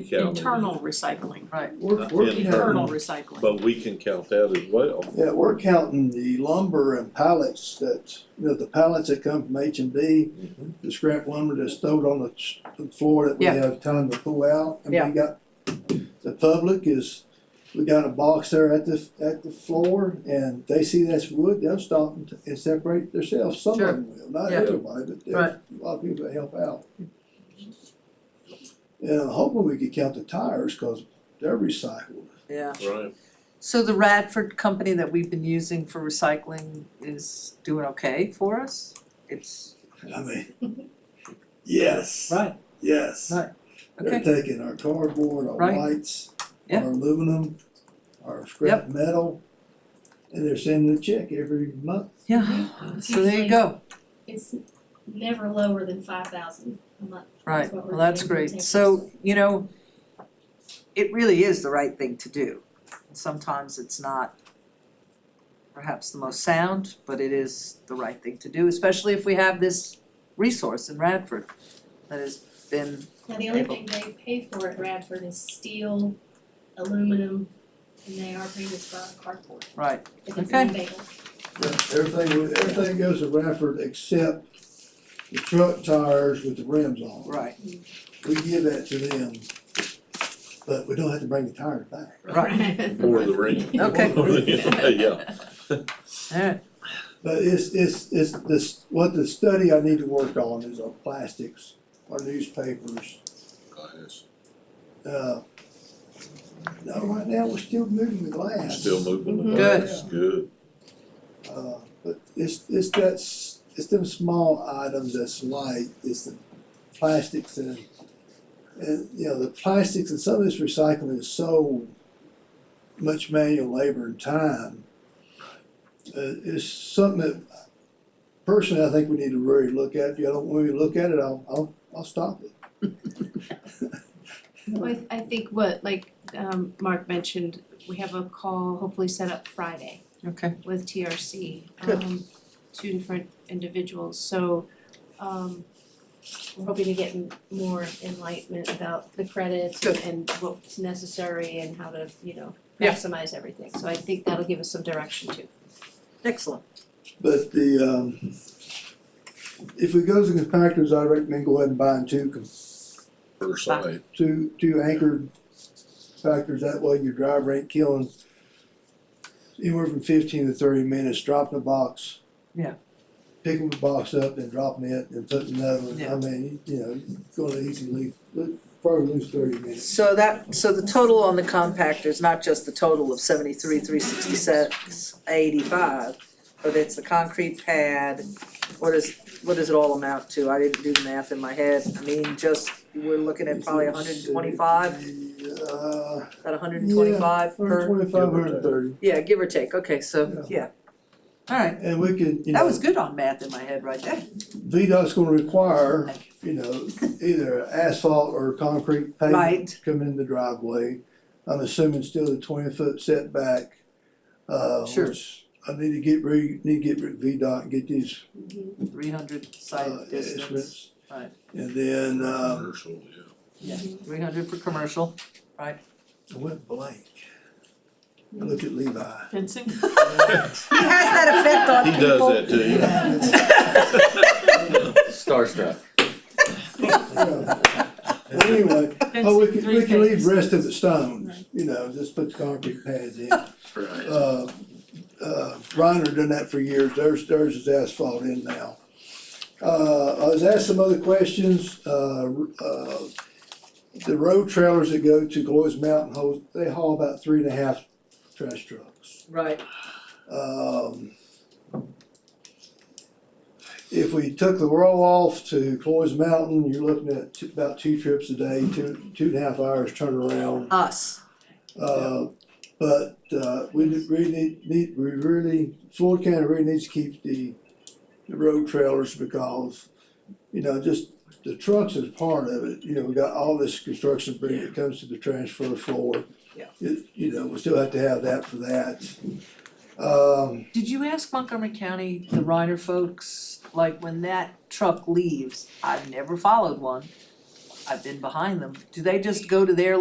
count it. internal recycling, Right. We're, Not we're the end. counting, internal recycling. But we can count that as well. yeah, we're counting the lumber and pallets that, you know, the pallets that come from H and B, Mhm. the scrap lumber that's stowed on the s- the floor that we Yeah. have time to pull out. And Yeah. we got, the public is, we got a box there at the, at the floor and they see that's wood, they'll stop and, and separate themselves. Some of Sure. them will, not Yeah. everybody, but Right. there's a lot of people that help out. And I'm hoping we could count the tires, cause they're recycled. Yeah, Right. so the Radford company that we've been using for recycling is doing okay for us? It's, I mean, yes, right, yes. Right. They're okay, taking our cardboard, our Right. lights, Yeah. our aluminum, our scrap metal, and they're sending a check every month. yeah, so there you go, It's never lower than five thousand a month. right, well, that's great, so, you know, it really is the right thing to do. Sometimes it's not perhaps the most sound, but it is the right thing to do, especially if we have this resource in Radford that has been, Now, the only thing they pay for at Radford is steel, aluminum, and they are paying us for cardboard, right, if it's Okay. unavailable. Everything, everything goes to Radford except the truck tires with the rims on. right, We give that to them, but we don't have to bring the tires back. right. Or the ring. Okay. Yeah, Alright, But it's, it's, it's this, what the study I need to work on is our plastics, our newspapers, Uh, No, right now, we're still moving the glass. still moving. Mhm. Good. That's Good. Uh, But it's, it's that, s- it's them small items that's light, it's the plastics and, and, you know, the plastics and some of this recycling is so much manual labor and time. Uh, it's something that personally, I think we need to really look at. If you don't want me to look at it, I'll, I'll, I'll stop it. Well, I th- I think what, like, um, Mark mentioned, we have a call hopefully set up Friday okay, with TRC, Good. um, two different individuals, so, um, we're hoping to get m- more enlightenment about the credits Good. and what's necessary and how to, you know, Yeah. maximize everything, so I think that'll give us some direction too. excellent. But the, um, if we go to the compactors, I recommend go ahead and buying two, com- Per side. two, two anchored compactors, that way your driver ain't killing anywhere from fifteen to thirty minutes, dropping a box. Yeah. Picking the box up and dropping it and putting another one, I Yeah. mean, you know, it's gonna easily, probably lose thirty minutes. So that, so the total on the compactor is not just the total of seventy-three, three sixty-six, eighty-five, but it's the concrete pad, what is, what does it all amount to? I didn't do the math in my head, I mean, just, we're looking at probably hundred and twenty-five, Uh, about hundred and twenty-five hundred per, twenty-five, hundred thirty, yeah, give or take, okay, so, yeah. Alright, and we could, you know. that was good on math in my head right there, VDOT's gonna require, you know, either asphalt or concrete pavement Right. come in the driveway. I'm assuming still the twenty foot setback, uh, Sure. which I need to get re, need to get rid of VDOT and get these, three hundred uh, site distance, estimates. right. And then, um, Commercial, yeah. three hundred for commercial, I went blank. I looked at Levi. Fencing, he has that effect on He does that to you. Starstruck. Anyway, oh, we could, we could leave Fencing, rest of the stones, you know, just put the concrete pads in. Right. uh, uh, Reiner done that for years, theirs, theirs is asphalt in now. Uh, I was asked some other questions, uh, uh, the road trailers that go to Gloy's Mountain Hose, they haul about three and a half trash trucks. Right, Um, if we took the roll off to Gloy's Mountain, you're looking at two- about two trips a day, two, two and a half hours turnaround. us, Uh, but, uh, we ne- really need, need, we really, Floyd County really needs to keep the, the road trailers because, you know, just the trucks is part of it, you know, we got all this construction debris that comes to the transfer floor. Yeah. It, you know, we still have to have that for that. Um, Did you ask Montgomery County, the Ryder folks, like when that truck leaves, I've never followed one. I've been behind them, do they just go to their